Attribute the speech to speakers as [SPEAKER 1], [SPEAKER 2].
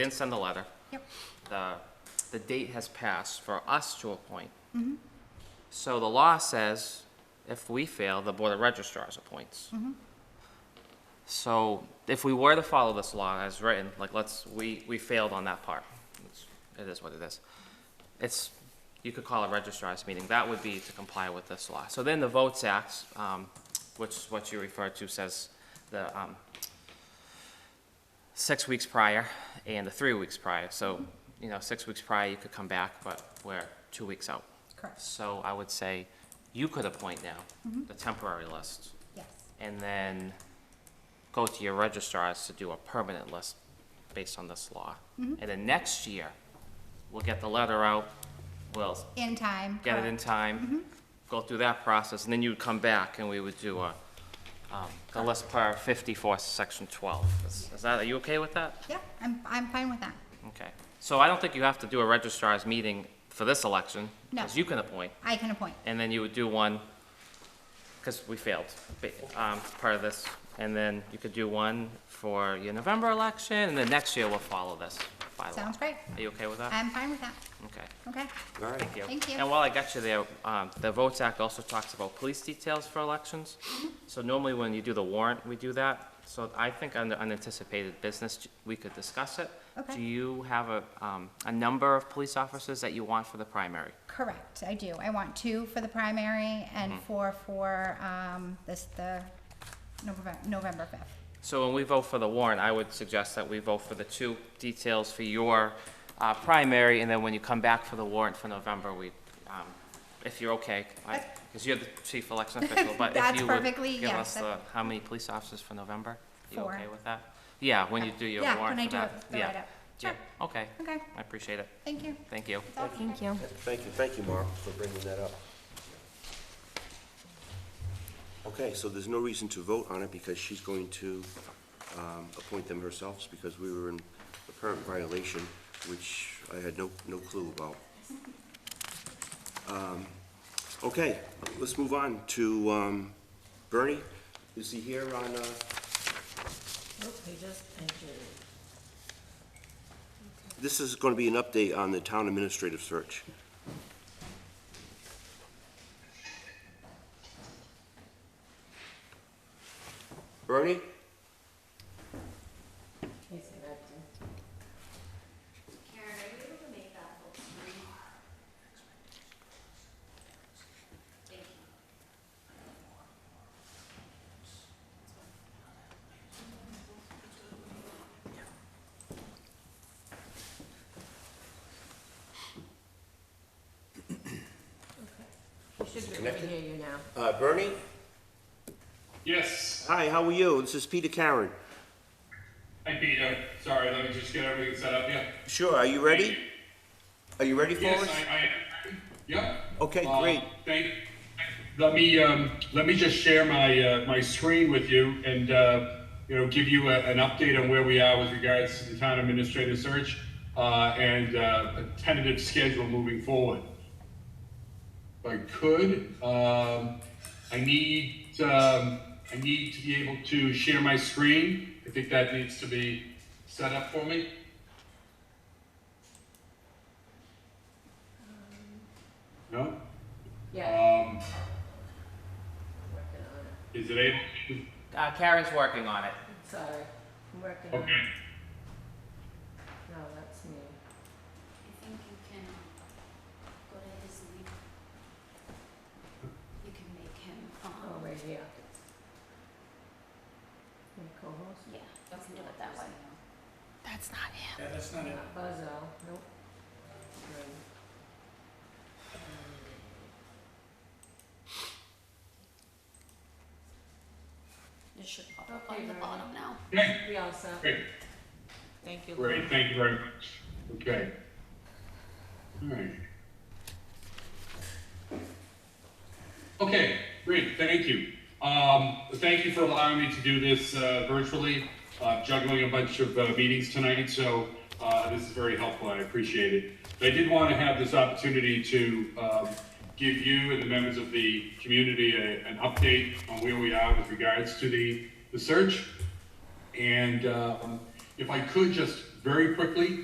[SPEAKER 1] didn't send the letter.
[SPEAKER 2] Yep.
[SPEAKER 1] The, the date has passed for us to appoint. So the law says if we fail, the Board of registrars appoints. So if we were to follow this law as written, like let's, we, we failed on that part. It's- It is what it is. It's, you could call a registrar's meeting. That would be to comply with this law. So then the Votes Act, um, which is what you referred to, says the, um, six weeks prior and the three weeks prior. So, you know, six weeks prior, you could come back, but we're two weeks out.
[SPEAKER 2] Correct,
[SPEAKER 1] So I would say you could appoint now, the temporary list,
[SPEAKER 2] yes.
[SPEAKER 1] and then go to your registrars to do a permanent list based on this law. And then next year, we'll get the letter out, we'll
[SPEAKER 2] In time.
[SPEAKER 1] get it in
[SPEAKER 2] correct.
[SPEAKER 1] time, go through that process, and then you'd come back and we would do a, um, the list per fifty-four, section twelve. Is is that, are you okay with that?
[SPEAKER 2] Yeah, I'm, I'm fine with that.
[SPEAKER 1] Okay. So I don't think you have to do a registrar's meeting for this election.
[SPEAKER 2] No.
[SPEAKER 1] Because you can appoint,
[SPEAKER 2] I can appoint.
[SPEAKER 1] and then you would do one, because we failed, ba- um, part of this. And then you could do one for your November election, and then next year we'll follow this bylaw.
[SPEAKER 2] Sounds great.
[SPEAKER 1] Are you okay with that?
[SPEAKER 2] I'm fine with that.
[SPEAKER 1] Okay.
[SPEAKER 2] Okay,
[SPEAKER 3] All right.
[SPEAKER 1] Thank you.
[SPEAKER 2] Thank you.
[SPEAKER 1] And while I got you there, um, the Votes Act also talks about police details for elections.
[SPEAKER 2] Mm-hmm.
[SPEAKER 1] So normally when you do the warrant, we do that. So I think under unanticipated business, we could discuss it.
[SPEAKER 2] Okay.
[SPEAKER 1] Do you have a, um, a number of police officers that you want for the primary?
[SPEAKER 2] correct, I do. I want two for the primary and
[SPEAKER 1] Mm-hmm.
[SPEAKER 2] four for, um, this, the November, November fifth.
[SPEAKER 1] So when we vote for the warrant, I would suggest that we vote for the two details for your, uh, primary, and then when you come back for the warrant for November, we, um, if you're okay, because you're the chief election official, but if
[SPEAKER 2] That's
[SPEAKER 1] you would
[SPEAKER 2] perfectly-
[SPEAKER 1] give
[SPEAKER 2] yeah,
[SPEAKER 1] us the,
[SPEAKER 2] that's-
[SPEAKER 1] how many police officers for November? You
[SPEAKER 2] Four.
[SPEAKER 1] okay with that? Yeah, when you do your
[SPEAKER 2] Yeah,
[SPEAKER 1] warrant
[SPEAKER 2] when I
[SPEAKER 1] for
[SPEAKER 2] do
[SPEAKER 1] that.
[SPEAKER 2] it, the write-up.
[SPEAKER 1] Yeah,
[SPEAKER 2] Sure.
[SPEAKER 1] okay,
[SPEAKER 2] Okay,
[SPEAKER 1] I appreciate it,
[SPEAKER 2] thank you.
[SPEAKER 1] thank you.
[SPEAKER 2] That's all.
[SPEAKER 4] Thank you.
[SPEAKER 3] Thank you, thank you, Mark, for bringing that up. Okay, so there's no reason to vote on it because she's going to um, appoint them herself because we were in apparent violation, which I had no, no clue about. Um, Okay, let's move on to um, Bernie. Is he here on, uh,
[SPEAKER 5] Nope, they just entered.
[SPEAKER 3] this is going to be an update on the town administrative search. Bernie?
[SPEAKER 5] He's connected.
[SPEAKER 6] Karen, are you able to make that full screen? Thank you.
[SPEAKER 5] He should be able to hear you now.
[SPEAKER 3] Uh, Bernie?
[SPEAKER 7] Yes,
[SPEAKER 3] Hi, how are you? This is Peter Karen.
[SPEAKER 7] hi Peter. Sorry, let me just get everything set up here.
[SPEAKER 3] Sure, are you ready? Are you ready for
[SPEAKER 7] Yes,
[SPEAKER 3] us?
[SPEAKER 7] I, I, yep.
[SPEAKER 3] Okay,
[SPEAKER 7] Uh,
[SPEAKER 3] great.
[SPEAKER 7] Thank, let me, um, let me just share my, uh, my screen with you and, uh, you know, give you a, an update on where we are with regards to the town administrative search, uh, and, uh, a tentative schedule moving forward. If I could, um, I need, um, I need to be able to share my screen. I think that needs to be set up for me. No?
[SPEAKER 5] Yeah,
[SPEAKER 7] Um,
[SPEAKER 5] working on it.
[SPEAKER 7] is it able?
[SPEAKER 1] Uh, Karen's working on it.
[SPEAKER 5] Sorry, I'm working on it.
[SPEAKER 7] Okay.
[SPEAKER 5] No, that's me.
[SPEAKER 6] I think you can go to his link. You can make him,
[SPEAKER 5] Oh,
[SPEAKER 6] um,
[SPEAKER 5] right here. My co-host?
[SPEAKER 6] yeah, you can do it that way.
[SPEAKER 4] That's not him.
[SPEAKER 5] Not Buzzell, nope. Right.
[SPEAKER 6] It should pop up
[SPEAKER 5] Okay,
[SPEAKER 6] on the
[SPEAKER 5] very
[SPEAKER 6] bottom now.
[SPEAKER 5] We all set?
[SPEAKER 7] Great,
[SPEAKER 5] Thank you.
[SPEAKER 7] great, thank you very much. Okay. All right. Okay, great, thank you. Um, thank you for allowing me to do this, uh, virtually, uh, juggling a bunch of, uh, meetings tonight, so, uh, this is very helpful, I appreciate it. But I did want to have this opportunity to, um, give you and the members of the community a, an update on where we are with regards to the, the search. And um, uh, if I could just very quickly.